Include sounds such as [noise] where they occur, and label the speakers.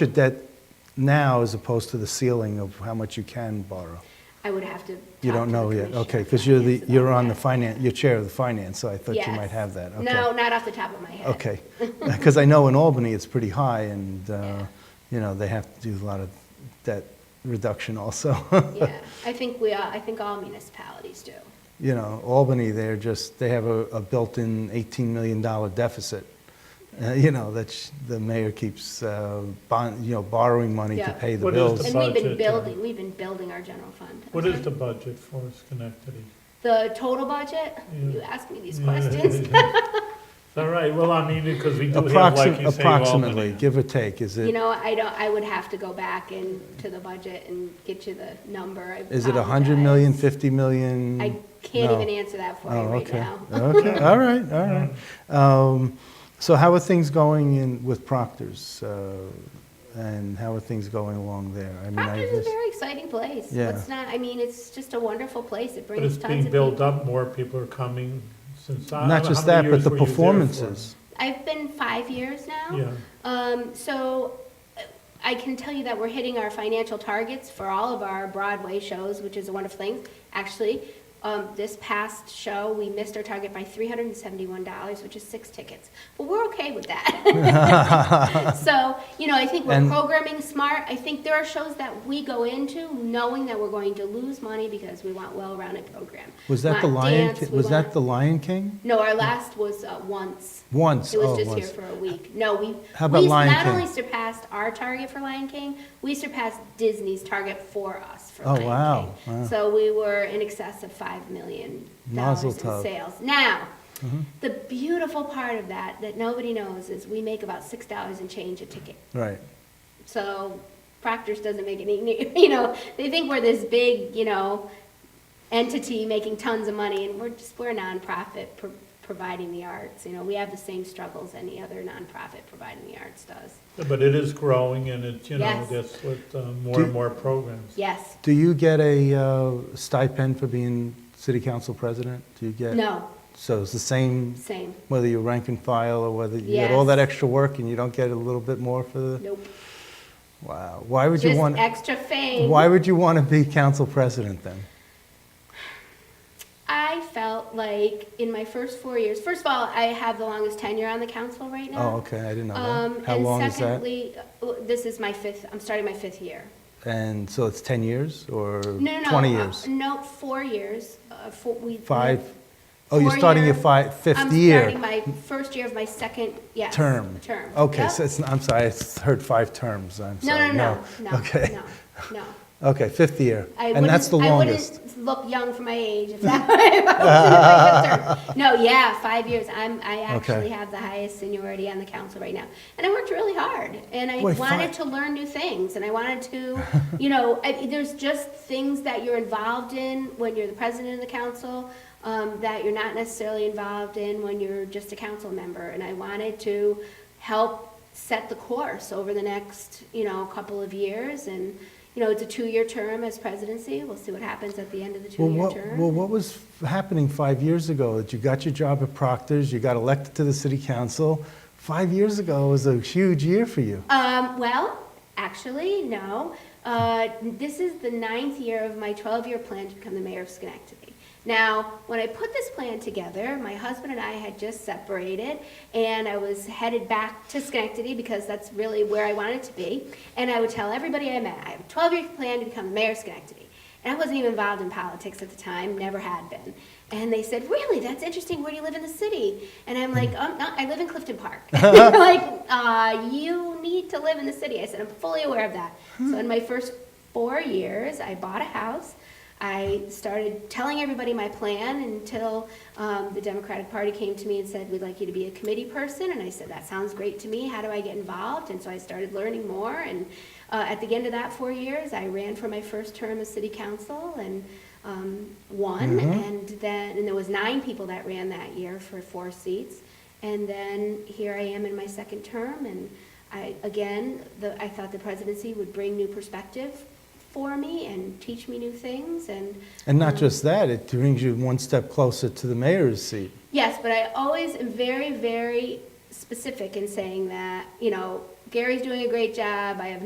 Speaker 1: your debt now as opposed to the ceiling of how much you can borrow?
Speaker 2: I would have to.
Speaker 1: You
Speaker 2: talk
Speaker 1: don't
Speaker 2: to the
Speaker 1: know yet,
Speaker 2: commissioner
Speaker 1: okay,
Speaker 2: about
Speaker 1: because you're the,
Speaker 2: finance
Speaker 1: you're
Speaker 2: about
Speaker 1: on the
Speaker 2: that.
Speaker 1: finance, you're chair of the finance, so I thought you
Speaker 2: Yes.
Speaker 1: might have that, okay.
Speaker 2: No, not off the top of my head.
Speaker 1: Okay, [laughs] because I know in Albany, it's pretty high, and, uh, you know, they have to do a lot of debt reduction also.
Speaker 2: [laughs]
Speaker 1: [laughs]
Speaker 2: Yeah, I think we are, I think all municipalities do.
Speaker 1: You know, Albany, they're just, they have a a built-in $18 million deficit. Uh, You know, that's, the mayor keeps uh, bond, you know, borrowing money to
Speaker 2: Yeah.
Speaker 1: pay the
Speaker 3: What is the
Speaker 1: bills.
Speaker 2: And we've been
Speaker 3: budget, uh,
Speaker 2: building, we've been building our general fund. I'm
Speaker 3: What is the
Speaker 2: sorry.
Speaker 3: budget for Schenectady?
Speaker 2: The total budget? You ask me these questions.
Speaker 3: [laughs] It's all right, well, I mean, because we do have, like
Speaker 1: Approxi-
Speaker 3: you say,
Speaker 1: Approximately,
Speaker 3: Albany.
Speaker 1: give or take, [laughs] is
Speaker 2: You
Speaker 1: it,
Speaker 2: know, I don't, I would have to go back and to the budget and get you the number. I
Speaker 1: is it 100
Speaker 2: apologize.
Speaker 1: million, 50 million?
Speaker 2: I can't
Speaker 1: No.
Speaker 2: even answer that for you
Speaker 1: Oh,
Speaker 2: right
Speaker 1: okay.
Speaker 2: now.
Speaker 1: Okay, all right, all right. Um, So how are things going in, with Proctor's? uh, And how are things going along there? I mean, I
Speaker 2: Proctor's is a
Speaker 1: just-
Speaker 2: very exciting place.
Speaker 1: Yeah.
Speaker 2: It's not, I mean, it's just a wonderful place. It
Speaker 3: But
Speaker 2: brings
Speaker 3: it's
Speaker 2: tons of people.
Speaker 3: being built up, more people are coming since. I-
Speaker 1: Not
Speaker 3: how
Speaker 1: just
Speaker 3: many
Speaker 1: that, but
Speaker 3: years
Speaker 1: the
Speaker 3: were you there for?
Speaker 1: performances.
Speaker 2: I've been five years now.
Speaker 3: Yeah.
Speaker 2: Um, so uh, I can tell you that we're hitting our financial targets for all of our Broadway shows, which is a wonderful thing. Actually, um, this past show, we missed our target by three hundred and seventy-one dollars, which is six tickets. But we're okay with that.
Speaker 1: [laughs]
Speaker 2: So, you know, I think we're
Speaker 1: And-
Speaker 2: programming smart. I think there are shows that we go into knowing that we're going to lose money because we want well-rounded program.
Speaker 1: Was that the
Speaker 2: Want
Speaker 1: Lion,
Speaker 2: dance,
Speaker 1: Ki-
Speaker 2: we
Speaker 1: was
Speaker 2: want-
Speaker 1: that the Lion King?
Speaker 2: No, our last was uh, once.
Speaker 1: Once,
Speaker 2: It
Speaker 1: oh,
Speaker 2: was just here
Speaker 1: once.
Speaker 2: for a week. No, we,
Speaker 1: How about
Speaker 2: we
Speaker 1: Lion
Speaker 2: not
Speaker 1: King?
Speaker 2: only surpassed our target for Lion King, we surpassed Disney's target for us for
Speaker 1: Oh,
Speaker 2: Lion
Speaker 1: wow,
Speaker 2: King.
Speaker 1: wow.
Speaker 2: So we were in excess of five million dollars
Speaker 1: Mazel
Speaker 2: in
Speaker 1: tov. Mm-hmm.
Speaker 2: sales. Now, the beautiful part of that that nobody knows is we make about six dollars and change a ticket.
Speaker 1: Right.
Speaker 2: So Proctor's doesn't make any, [laughs] you know, they think we're this big, you know, entity making tons of money, and we're just, we're a nonprofit pro- providing the arts. You know, we have the same struggles any other nonprofit providing the arts does.
Speaker 3: But it is growing and it's, you know,
Speaker 2: Yes.
Speaker 3: that's what, uh, more
Speaker 1: Do-
Speaker 3: and more programs.
Speaker 2: Yes,
Speaker 1: Do you get a uh, stipend for being city council president? Do you get?
Speaker 2: no,
Speaker 1: So it's the same,
Speaker 2: same,
Speaker 1: whether you rank and file or whether you get all
Speaker 2: Yes.
Speaker 1: that extra work and you don't get a little bit more for the?
Speaker 2: nope.
Speaker 1: Wow. Why would you
Speaker 2: Just
Speaker 1: want,
Speaker 2: extra fame.
Speaker 1: why would you want to be council president then?
Speaker 2: I felt like in my first four years, first of all, I have the longest tenure on the council right now.
Speaker 1: Oh, okay, I didn't know
Speaker 2: Um,
Speaker 1: that. How
Speaker 2: and
Speaker 1: long is that?
Speaker 2: secondly, uh, this is my fifth, I'm starting my fifth year.
Speaker 1: And so it's 10 years or
Speaker 2: No, no,
Speaker 1: 20
Speaker 2: no, uh,
Speaker 1: years?
Speaker 2: No, four years. Uh, four, we
Speaker 1: Five? Oh, you're
Speaker 2: four
Speaker 1: starting your
Speaker 2: year-
Speaker 1: fi- fifth
Speaker 2: I'm
Speaker 1: year
Speaker 2: starting my first year of my second, yes.
Speaker 1: term?
Speaker 2: Term.
Speaker 1: Okay,
Speaker 2: Yep.
Speaker 1: so it's, I'm sorry, I s- heard five terms, I'm
Speaker 2: No,
Speaker 1: sorry.
Speaker 2: no, no, no,
Speaker 1: [laughs] Okay,
Speaker 2: no, no.
Speaker 1: okay, fifth year.
Speaker 2: I
Speaker 1: And that's the
Speaker 2: wouldn't-
Speaker 1: longest.
Speaker 2: I wouldn't look young for my
Speaker 1: [laughs]
Speaker 2: age if that [laughs] was my term. No, yeah, five years. I'm, I actually have the highest seniority on the council right now. And I worked really hard and I
Speaker 1: Boy,
Speaker 2: wanted
Speaker 1: five-
Speaker 2: to learn new things and I wanted to, [laughs] you know, I, there's just things that you're involved in when you're the president of the council, um, that you're not necessarily involved in when you're just a council member. And I wanted to help set the course over the next, you know, couple of years. And, you know, it's a two-year term as presidency. We'll see what happens at the end of the
Speaker 1: Well,
Speaker 2: two-year
Speaker 1: what,
Speaker 2: term.
Speaker 1: well, what was f- happening five years ago? That you got your job at Proctor's, you got elected to the city council. Five years ago was a huge year for you.
Speaker 2: Um, well, actually, no. Uh, this is the ninth year of my 12-year plan to become the mayor of Schenectady. Now, when I put this plan together, my husband and I had just separated, and I was headed back to Schenectady because that's really where I wanted to be. And I would tell everybody I met, I have a 12-year plan to become the mayor of Schenectady. And I wasn't even involved in politics at the time, never had been. And they said, "Really? That's interesting. Where do you live in the city?" And I'm like, "Um, no, I live in Clifton Park." [laughs] They're like, uh, "You need to live in the city." I said, "I'm fully aware of that." So in my first four years, I bought a house. I started telling everybody my plan until um, the Democratic Party came to me and said, "We'd like you to be a committee person." And I said, "That sounds great to me. How do I get involved?" And so I started learning more. And uh, at the end of that four years, I ran for my first term as city council and um, won. And then, and there was nine people that ran that year for four seats. And then here I am in my second term, and I, again, the, I thought the presidency would bring new perspective for me and teach me new things, and
Speaker 1: And not just that, it brings you one step closer to the mayor's seat.
Speaker 2: Yes, but I always am very, very specific in saying that, you know, Gary's doing a great job, I have